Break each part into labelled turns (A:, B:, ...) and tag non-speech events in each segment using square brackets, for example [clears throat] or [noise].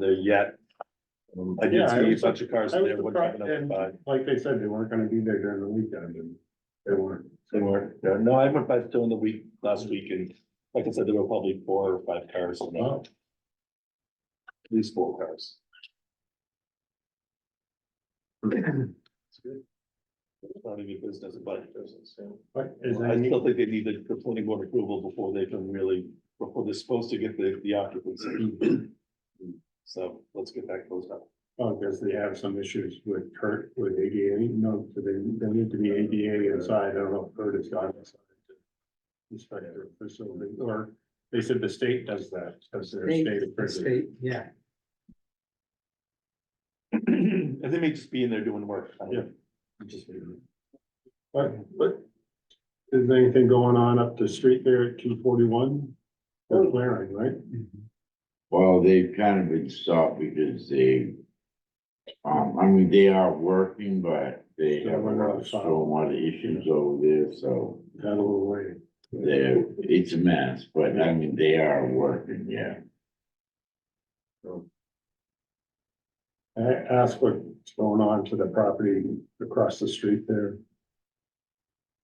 A: there yet. Um, I
B: Yeah,
A: did
B: I
A: see a
B: was-
A: bunch of cars
B: I was
A: there, wouldn't have
B: surprised,
A: been up
B: and like they said, they weren't gonna be there during the weekend, and they weren't.
A: They weren't, yeah, no, I went by still in the week, last week, and like I said, there were probably four or five cars, in there.
B: Wow.
A: at least four cars. It's good. It's Not even business, but business, yeah.
B: But
A: I
B: is there any,
A: still think they need the the planning board approval before they can really, before they're supposed to get the, the occupancy. So let's get that closed up. [clears throat]
B: oh, does they have some issues with Kurt, with ADA? No, do they, they need to be ADA inside, I don't know if Kurt has gone inside. to Inspect their facility, or they said the state does that, does their
C: They-
B: state.
C: the
B: prison.
C: state, yeah.
A: And they may just be in there doing work. I don't know. Just
B: But, but is there anything going on up the street there at two forty-one?
C: Oh.
B: They're clearing, right?
C: Mm-hmm.
D: Well, they've kind of been stopped because they, um, I mean, they are working, but they
B: Yeah,
D: have a
B: we're
D: lot
B: not
D: of
B: fine.
D: stormwater issues over there, so
B: Had a little way.
D: they're, it's a mess, but I mean, they are working, yeah.
B: I asked what's going on to the property across the street there.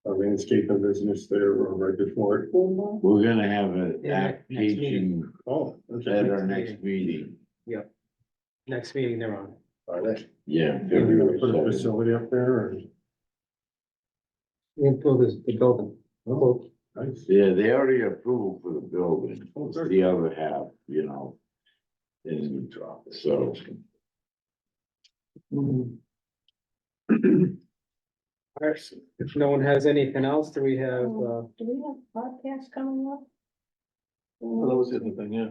B: A landscaping business there or right before it.
D: We're gonna have a
C: Yeah, next
D: application
B: Oh, okay.
D: at our
C: Next
D: next meeting,
C: Next meeting they're on.
D: yeah,
B: They're gonna
D: February
B: put a
D: seventh.
B: facility up there or?
C: We improve this- the building.
B: Oh, nice.
D: Yeah, they already approved for the building,
B: Oh,
D: It's
B: good.
D: the other half, you know. And so.
B: Mm-hmm.
C: All right, If no one has anything else, do we have, uh,
E: Do we have podcasts coming up?
A: Well, that was the other thing, yeah.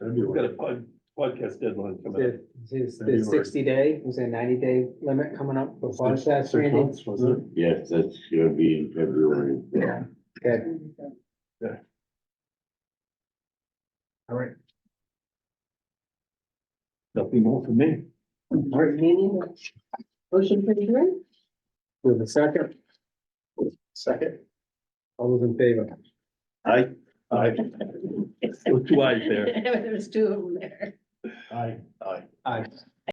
A: We've got
B: February.
A: a pod, podcast deadline coming up.
C: uh, the, is the
B: February.
C: sixty day, was there ninety day limit coming up for
B: Six
C: podcasts, Randy?
B: months, was it?
D: Yes, that's gonna be in February.
C: Yeah. Okay,
A: All right. Nothing more for me.
E: All right, meaning that- Motion for adjournment?
C: with a second,
A: Second.
C: all those in favor?
A: Aye. Aye. With two eyes there.
E: [laughs] There was two of them there.
B: Aye.
A: Aye.
C: Aye.